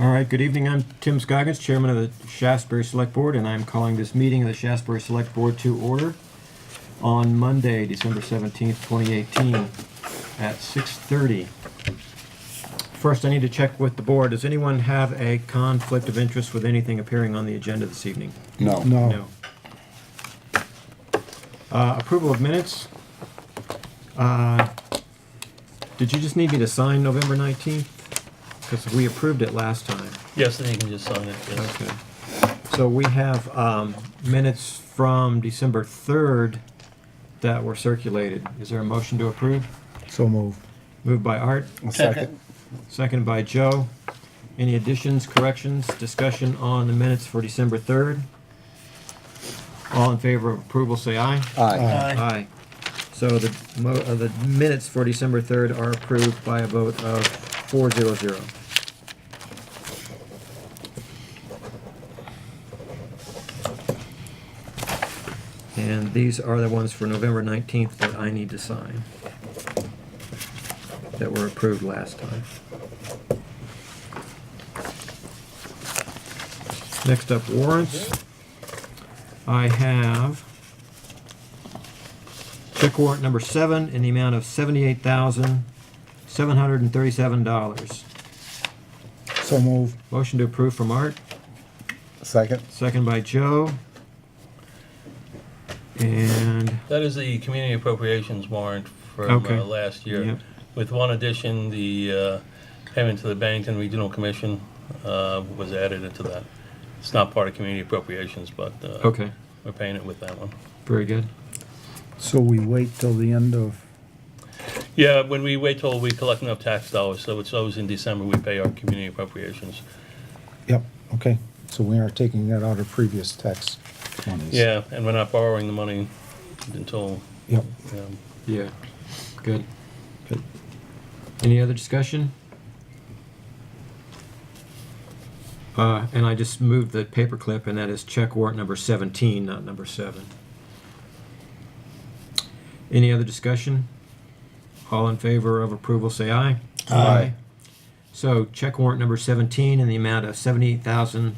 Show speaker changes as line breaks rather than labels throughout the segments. All right, good evening. I'm Tim Scoggins, Chairman of the Shasbury Select Board, and I'm calling this meeting of the Shasbury Select Board to order on Monday, December 17th, 2018, at 6:30. First, I need to check with the board. Does anyone have a conflict of interest with anything appearing on the agenda this evening?
No.
No. Uh, Approval of minutes. Uh, Did you just need me to sign November 19th? Because we approved it last time.
Yes, then you can just sign it, yes.
Okay. So we have um, minutes from December 3rd that were circulated. Is there a motion to approve?
So moved.
Moved by Art,
Second.
seconded by Joe. Any additions, corrections, discussion on the minutes for December 3rd? All in favor of approval, say aye.
Aye.
Aye.
Aye. So the mo, uh, the minutes for December third are approved by a vote of four zero zero. And these are the ones for November nineteenth that I need to sign. That were approved last time. Next up warrants. I have Check warrant number seven in the amount of seventy-eight thousand, seven hundred and thirty-seven dollars.
So moved.
Motion to approve from Art,
Second.
second by Joe. And,
That is the community appropriations warrant from
Okay.
uh, last year.
yep,
With one addition, the uh, payment to the Bennington Regional Commission uh, was added into that. It's not part of community appropriations, but uh,
okay,
we're paying it with that one.
very good.
So we wait till the end of,
Yeah, when we wait till we collect enough tax dollars, so it's always in December, we pay our community appropriations.
yep, okay. So we are taking that out of previous tax monies.
Yeah, and we're not borrowing the money until,
Yep.
um,
Yeah, good.
Good.
Any other discussion? Uh, and I just moved the paperclip, and that is check warrant number seventeen, not number seven. Any other discussion? All in favor of approval, say aye. So check warrant number seventeen in the amount of seventy-eight thousand,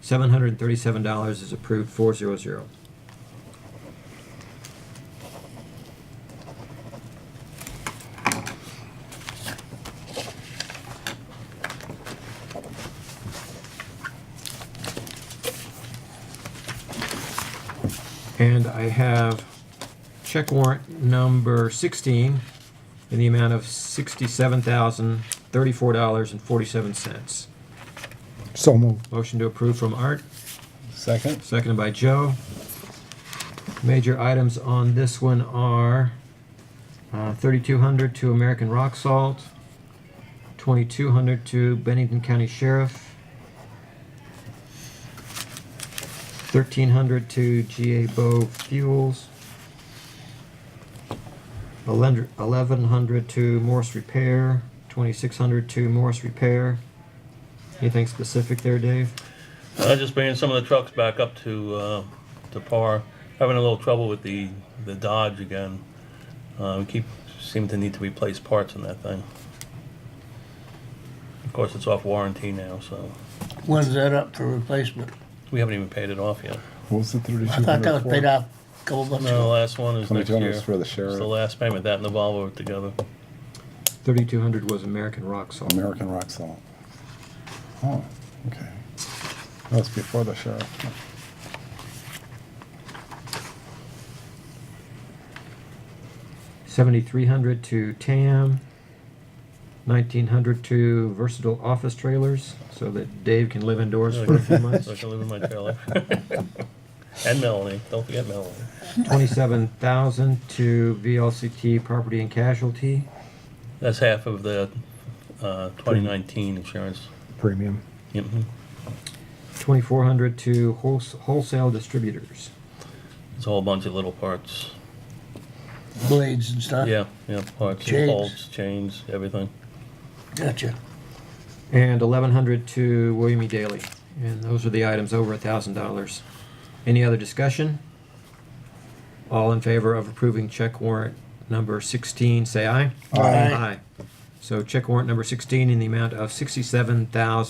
seven hundred and thirty-seven dollars is approved four zero zero. And I have check warrant number sixteen in the amount of sixty-seven thousand, thirty-four dollars and forty-seven cents.
So moved.
Motion to approve from Art,
Second.
seconded by Joe. Major items on this one are uh, 3,200 to American Rock Salt, 2,200 to Bennington County Sheriff, 1,300 to GA Bow Fuels, 1,100 to Morse Repair, 2,600 to Morse Repair. Anything specific there, Dave?
Uh, just bringing some of the trucks back up to, uh, to par. Having a little trouble with the, the Dodge again. Uh, we keep, seem to need to replace parts in that thing. Of course, it's off warranty now, so
When's that up for replacement?
we haven't even paid it off yet.
What's the thirty-two
I thought that was paid off a couple months
No, the
ago.
last one is next
2200
year.
is for the
It's
sheriff.
the last payment, that and the Volvo together.
3,200 was American Rock Salt.
American rock salt. Oh, okay. That's before the sheriff.
Seventy-three hundred to TAM, nineteen hundred to versatile office trailers, so that Dave can live indoors for a few months.
So I can live in my trailer. And Melanie, don't forget Melanie.
Twenty-seven thousand to VLCT property and casualty,
That's half of the, uh, twenty nineteen insurance.
Premium.
Mm-hmm.
Mhm.
twenty-four hundred to wholes- wholesale distributors.
It's a whole bunch of little parts.
Blades and stuff?
Yeah, yeah, parts, and
Chains.
bolts, chains, everything.
Gotcha.
And eleven hundred to William E. Daly, and those are the items over a thousand dollars. Any other discussion? All in favor of approving check warrant number sixteen, say aye.
Aye.
Aye. So check warrant number sixteen in the amount of sixty-seven thousand.